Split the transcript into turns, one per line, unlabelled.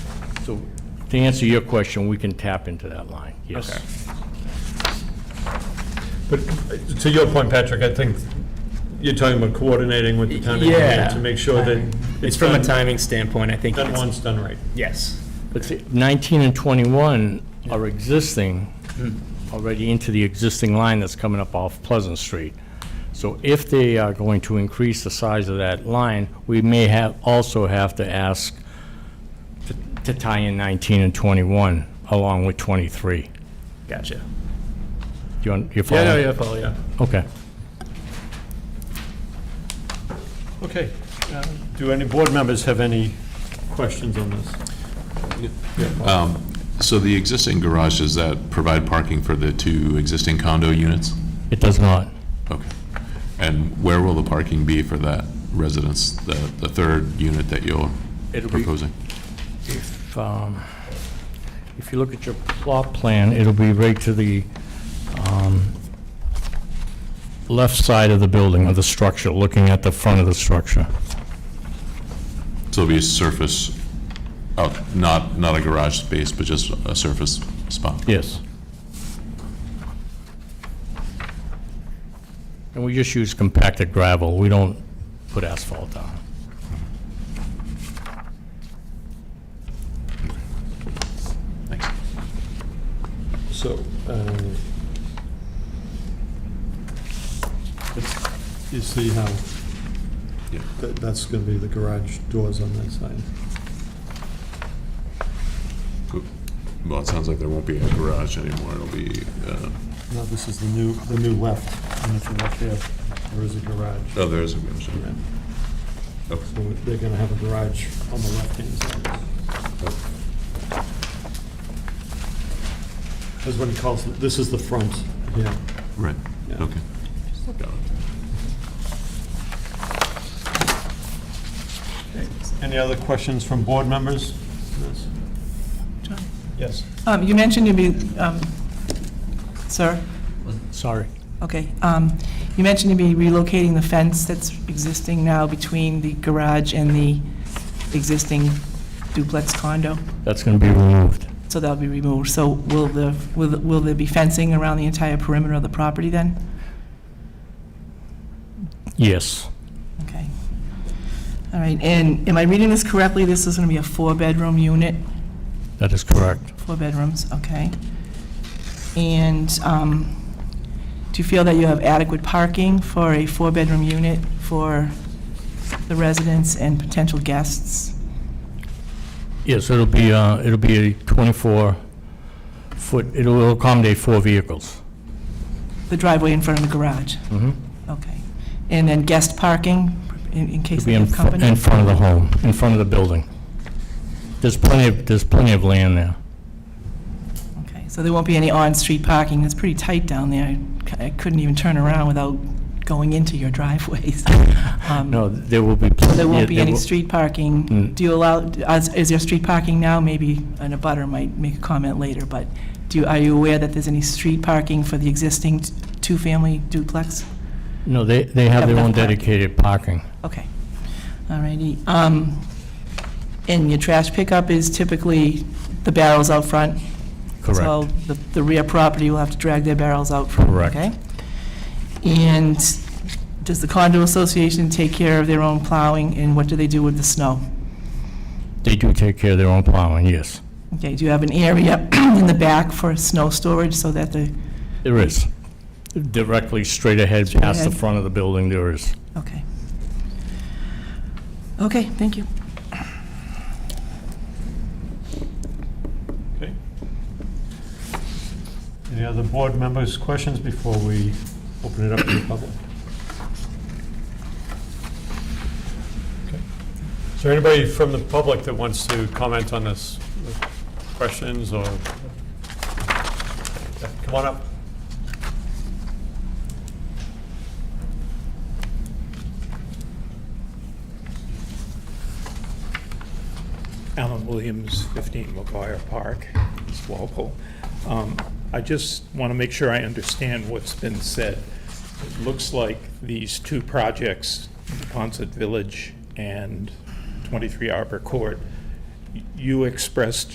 So,
To answer your question, we can tap into that line, yes.
okay.
But uh, to your point, Patrick, I think you're talking about coordinating with the town engineer
Yeah.
to make sure that.
It's from a
done-
timing standpoint, I think.
Done
it's-
once, done right.
Yes.
But see, 19 and 21 are existing, already into the existing line that's coming up off Pleasant Street. So if they are going to increase the size of that line, we may have, also have to ask to- to tie in 19 and 21 along with 23. Do
Gotcha.
you, un- you follow?
Yeah, yeah, yeah, Paul, yeah.
Okay.
Okay. uh, Do any board members have any questions on this?
So the existing garage, does that provide parking for the two existing condo units?
It does not.
Okay. And where will the parking be for that residence, the, the third unit that you're proposing?
If, um, if you look at your plot plan, it'll be right to the um, left side of the building, of the structure, looking at the front of the structure.
So it'll be a surface, oh, not, not a garage space, but just a surface spot?
Yes. And we just use compacted gravel, we don't put asphalt down.
Thanks.
So, um, it's- you see how
Yeah.
that- that's going to be the garage doors on that side.
Cool. Well, it sounds like there won't be a garage anymore, it'll be, uh,
Now, this is the new, the new left, and if you look there, there is a garage.
oh, there is a garage.
Yeah.
Okay.
So they're going to have a garage on the left-hand side. That's what he calls, it. this is the front. Yeah.
Right,
Yeah.
okay. Got it.
Any other questions from board members? Yes.
Um, You mentioned you'd be, um, sir,
Sorry.
okay, Um, you mentioned you'd be relocating the fence that's existing now between the garage and the existing duplex condo,
That's going to be removed.
so that'll be removed. So will the, will the- will there be fencing around the entire perimeter of the property then?
Yes.
Okay. All right, and am I reading this correctly? This is going to be a four-bedroom unit?
That is correct.
Four bedrooms, okay. And um, do you feel that you have adequate parking for a four-bedroom unit for the residents and potential guests?
Yes, it'll be, uh, it'll be a 24-foot, it'll accommodate four vehicles.
The driveway in front of the garage?
Mhm.
Okay. And then guest parking in in case
To be
they
in
have
fr-
company?
in front of the home, in front of the building. There's plenty of, there's plenty of land there.
Okay, so there won't be any on-street parking, it's pretty tight down there. I c- I couldn't even turn around without going into your driveways. Um,
No, there will be.
So there won't be any
street.
street parking?
Mm.
Do you allow, is is there street parking now? Maybe an abutter might make a comment later, but do, you- are you aware that there's any street parking for the existing t- two-family duplex?
No, they, they have
Have
their own
enough parking.
dedicated parking.
Okay, all righty. Um, And your trash pickup is typically the barrels out front? So
Correct.
the the rear property will have to drag their barrels out front?
Correct.
okay? And does the condo association take care of their own plowing, and what do they do with the snow?
They do take care of their own plowing, yes.
Okay, do you have an area in the back for snow storage so that the,
There is. Directly straight ahead,
Straight
past the
ahead.
front of the building, there is.
okay. Okay, thank you.
Okay. Any other board members' questions before we open it up to the public? Okay. Is there anybody from the public that wants to comment on this? Questions or? Yeah, Come on up.
Alan Williams, 15 McGuire Park, East Walpole. Um, I just want to make sure I understand what's been said. It looks like these two projects, Ponset Village and 23 Arbor Court, y- you expressed